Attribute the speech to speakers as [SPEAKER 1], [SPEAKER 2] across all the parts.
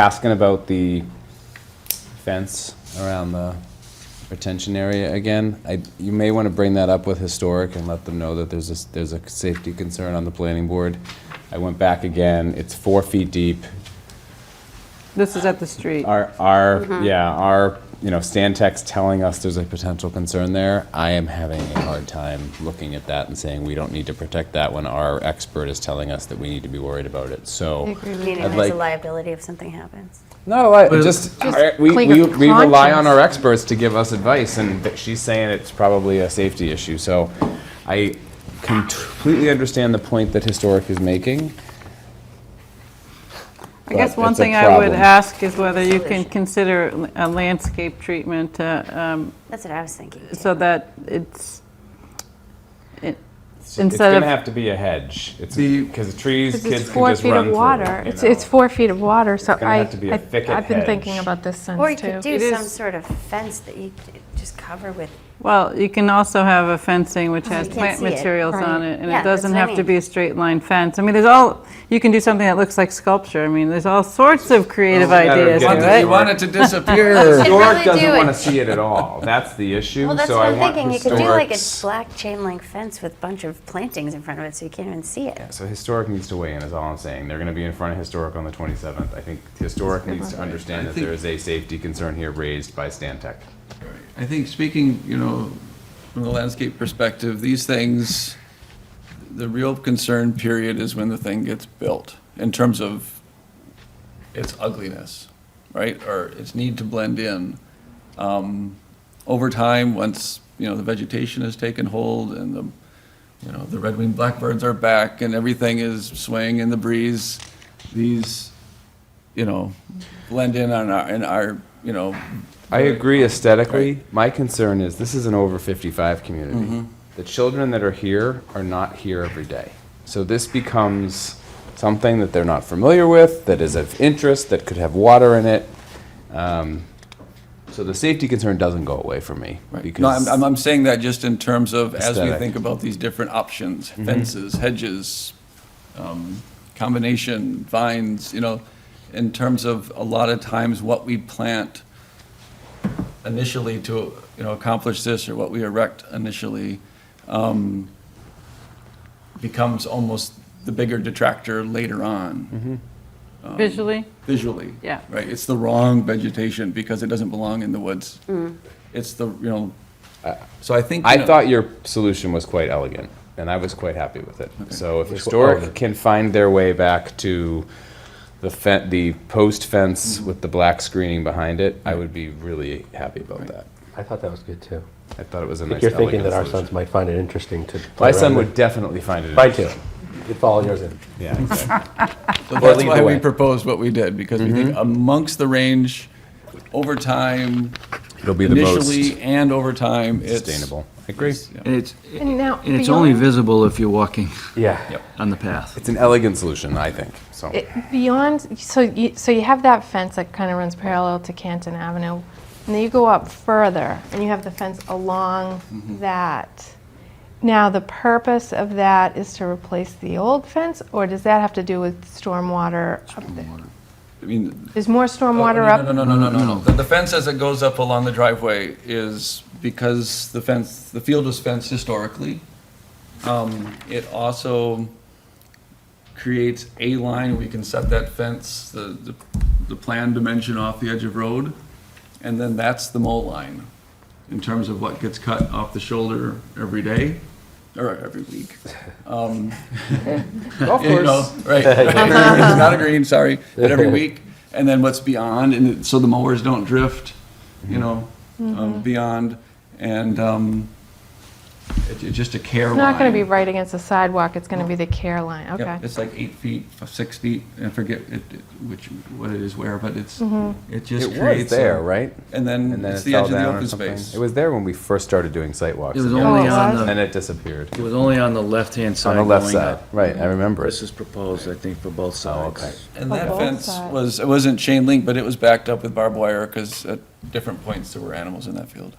[SPEAKER 1] asking about the fence around the retention area again. I, you may want to bring that up with historic and let them know that there's a, there's a safety concern on the planning board. I went back again, it's four feet deep.
[SPEAKER 2] This is at the street.
[SPEAKER 1] Our, our, yeah, our, you know, Stantec's telling us there's a potential concern there. I am having a hard time looking at that and saying we don't need to protect that when our expert is telling us that we need to be worried about it, so.
[SPEAKER 3] Meaning
[SPEAKER 1] I'd
[SPEAKER 3] there's
[SPEAKER 1] like-
[SPEAKER 3] a liability if something happens.
[SPEAKER 1] Not a lot. Just,
[SPEAKER 4] Just
[SPEAKER 1] I- we,
[SPEAKER 4] like
[SPEAKER 1] we,
[SPEAKER 4] a
[SPEAKER 1] we rely on
[SPEAKER 4] conscience.
[SPEAKER 1] our experts to give us advice, and th- she's saying it's probably a safety issue. So I completely understand the point that Historic is making.
[SPEAKER 2] I guess
[SPEAKER 1] but
[SPEAKER 2] one
[SPEAKER 1] it's a
[SPEAKER 2] thing I would
[SPEAKER 1] problem.
[SPEAKER 2] ask is whether you can
[SPEAKER 3] Solution.
[SPEAKER 2] consider a landscape treatment uh, um,
[SPEAKER 3] That's what I was thinking. too.
[SPEAKER 2] so that it's, it-
[SPEAKER 1] It's going
[SPEAKER 2] instead
[SPEAKER 1] to
[SPEAKER 2] of,
[SPEAKER 1] have to be a hedge. It's
[SPEAKER 5] The-
[SPEAKER 1] because trees,
[SPEAKER 4] Because
[SPEAKER 1] kids
[SPEAKER 4] it's
[SPEAKER 1] can
[SPEAKER 4] four
[SPEAKER 1] just
[SPEAKER 4] feet
[SPEAKER 1] run
[SPEAKER 4] of
[SPEAKER 1] through.
[SPEAKER 4] water.
[SPEAKER 1] you
[SPEAKER 4] It's,
[SPEAKER 1] know.
[SPEAKER 4] it's four feet of water, so
[SPEAKER 1] gonna
[SPEAKER 4] I,
[SPEAKER 1] have to be a
[SPEAKER 4] I-
[SPEAKER 1] thicket
[SPEAKER 4] I've been
[SPEAKER 1] hedge.
[SPEAKER 4] thinking about this since too.
[SPEAKER 3] Or you could do
[SPEAKER 2] It
[SPEAKER 3] some
[SPEAKER 2] is-
[SPEAKER 3] sort of fence that you c- just cover with,
[SPEAKER 2] well, you can also have a fencing which has
[SPEAKER 3] Oh, you can't
[SPEAKER 2] plant
[SPEAKER 3] see it.
[SPEAKER 2] materials on it, and
[SPEAKER 3] Yeah,
[SPEAKER 2] it
[SPEAKER 3] that's
[SPEAKER 2] doesn't
[SPEAKER 3] what I
[SPEAKER 2] have to
[SPEAKER 3] mean.
[SPEAKER 2] be a straight line fence. I mean, there's all, you can do something that looks like sculpture. I mean, there's all sorts of creative
[SPEAKER 1] matter of
[SPEAKER 2] ideas here,
[SPEAKER 1] getting
[SPEAKER 5] You
[SPEAKER 2] right?
[SPEAKER 5] want it to disappear.
[SPEAKER 1] Historic
[SPEAKER 4] really do
[SPEAKER 1] doesn't
[SPEAKER 4] it.
[SPEAKER 1] want to see it at all. That's the issue.
[SPEAKER 3] well, that's
[SPEAKER 1] so
[SPEAKER 3] what
[SPEAKER 1] I
[SPEAKER 3] I'm
[SPEAKER 1] want
[SPEAKER 3] thinking. You could do like a
[SPEAKER 1] Historic's-
[SPEAKER 3] black chain link fence with a bunch of plantings in front of it so you can't even see it.
[SPEAKER 1] So historic needs to weigh in is all I'm saying. They're going to be in front of historic on the 27th. I think historic needs to understand that there is a safety concern here raised by Stantec.
[SPEAKER 5] I think speaking, you know, from the landscape perspective, these things, the real concern period is when the thing gets built in terms of its ugliness, right? Or its need to blend in. Um, Over time, once, you know, the vegetation has taken hold and the, you know, the red-winged blackbirds are back and everything is swaying in the breeze, these, you know, blend in on our, in our, you know,
[SPEAKER 1] I agree aesthetically. My concern is this is an over 55 community.
[SPEAKER 5] Mm-hmm.
[SPEAKER 1] The children that are here are not here every day. So this becomes something that they're not familiar with, that is of interest, that could have water in it. Um, so the safety concern doesn't go away for me
[SPEAKER 5] Right. No,
[SPEAKER 1] because
[SPEAKER 5] I'm, I'm- I'm saying that just in terms of, as we
[SPEAKER 1] Aesthetic. Mm-hmm.
[SPEAKER 5] think about these different options, fences, hedges, um, combination, vines, you know, in terms of a lot of times what we plant initially to, you know, accomplish this, or what we erect initially, um, becomes almost the bigger detractor later
[SPEAKER 1] Mm-hmm.
[SPEAKER 5] on,
[SPEAKER 2] Visually,
[SPEAKER 5] visually.
[SPEAKER 2] Yeah.
[SPEAKER 5] Right, it's the wrong vegetation because it doesn't belong in the woods. It's the, you know, so I think. you
[SPEAKER 1] I
[SPEAKER 5] know-
[SPEAKER 1] thought your solution was quite elegant, and I was quite happy with it. So if historic can find their way back to the fe- the post fence with the black screening behind it, I would be really happy about that.
[SPEAKER 6] I thought that was good too.
[SPEAKER 1] I thought it was a
[SPEAKER 6] If
[SPEAKER 1] nice.
[SPEAKER 6] you're thinking
[SPEAKER 1] elegant
[SPEAKER 6] that our
[SPEAKER 1] solution.
[SPEAKER 6] sons might find it interesting to. play
[SPEAKER 1] My
[SPEAKER 6] around
[SPEAKER 1] son
[SPEAKER 6] with.
[SPEAKER 1] would definitely find it.
[SPEAKER 6] Mine too. It'd follow yours in.
[SPEAKER 1] Yeah, exactly.
[SPEAKER 5] So that's
[SPEAKER 1] lead
[SPEAKER 5] why
[SPEAKER 1] the
[SPEAKER 5] we
[SPEAKER 1] way.
[SPEAKER 5] proposed what we did, because we
[SPEAKER 1] Mm-hmm.
[SPEAKER 5] think amongst the range, over time,
[SPEAKER 1] it'll be the most
[SPEAKER 5] initially and over time, it's.
[SPEAKER 1] sustainable. I agree.
[SPEAKER 7] And it's,
[SPEAKER 4] And now
[SPEAKER 7] and it's only
[SPEAKER 4] beyond-
[SPEAKER 7] visible if you're walking
[SPEAKER 6] Yeah.
[SPEAKER 7] on the path.
[SPEAKER 1] It's an elegant solution, I think. So
[SPEAKER 4] It- Beyond, so you, so you have that fence that kind of runs parallel to Canton Avenue, and then you go up further, and you have the fence along
[SPEAKER 5] Mm-hmm.
[SPEAKER 4] that. Now, the purpose of that is to replace the old fence, or does that have to do with stormwater up there?
[SPEAKER 5] I mean.
[SPEAKER 4] There's more stormwater
[SPEAKER 5] Oh, no,
[SPEAKER 4] up?
[SPEAKER 5] No, no, no, no, no, no. The- The fence as it goes up along the driveway is because the fence, the field was fenced historically. Um, It also creates a line, we can set that fence, the, the, the plan dimension off the edge of road, and then that's the mow line in terms of what gets cut off the shoulder every day, or every week. Um, you know, Right.
[SPEAKER 4] Uh-huh.
[SPEAKER 5] It's Not a green, sorry, but every week, and then what's beyond, and it- so the mowers don't drift, you know,
[SPEAKER 4] Mm-hmm.
[SPEAKER 5] um, beyond, and, um, it- it's just a care
[SPEAKER 4] It's
[SPEAKER 5] line.
[SPEAKER 4] not going to be right against the sidewalk, it's going to be the care line,
[SPEAKER 5] Yep,
[SPEAKER 4] okay.
[SPEAKER 5] It's like eight feet, f- six feet, I forget it- it- which, what it is where, but it's,
[SPEAKER 4] Mm-hmm.
[SPEAKER 5] it just
[SPEAKER 1] it was
[SPEAKER 5] creates. a-
[SPEAKER 1] there, right?
[SPEAKER 5] And then
[SPEAKER 1] And then
[SPEAKER 5] it's
[SPEAKER 1] it
[SPEAKER 5] the
[SPEAKER 1] fell
[SPEAKER 5] edge of the
[SPEAKER 1] down or
[SPEAKER 5] open
[SPEAKER 1] something.
[SPEAKER 5] space.
[SPEAKER 1] It was there when we first started doing site walks.
[SPEAKER 7] It was
[SPEAKER 1] again,
[SPEAKER 7] only
[SPEAKER 4] Oh,
[SPEAKER 7] on
[SPEAKER 1] And then
[SPEAKER 7] the,
[SPEAKER 1] it disappeared.
[SPEAKER 7] it was only on the left-hand
[SPEAKER 1] On
[SPEAKER 7] side
[SPEAKER 1] the
[SPEAKER 7] going
[SPEAKER 1] left side,
[SPEAKER 7] up.
[SPEAKER 1] right, I remember it.
[SPEAKER 7] This is proposed, I think, for both
[SPEAKER 1] Oh,
[SPEAKER 7] sides.
[SPEAKER 1] okay.
[SPEAKER 5] And
[SPEAKER 4] On
[SPEAKER 5] that
[SPEAKER 4] both
[SPEAKER 5] fence
[SPEAKER 4] sides.
[SPEAKER 5] was, it wasn't chain link, but it was backed up with barbed wire, because at different points, there were animals in that field.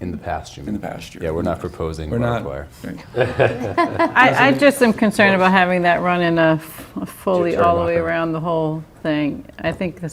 [SPEAKER 1] In the past, you mean?
[SPEAKER 5] in the pasture.
[SPEAKER 1] Yeah, we're not proposing
[SPEAKER 5] We're not.
[SPEAKER 1] barbed wire.
[SPEAKER 5] Right.
[SPEAKER 2] I, I just am concerned about having that run in a f- a fully all the way
[SPEAKER 6] Turn off.
[SPEAKER 2] around the whole thing. I think this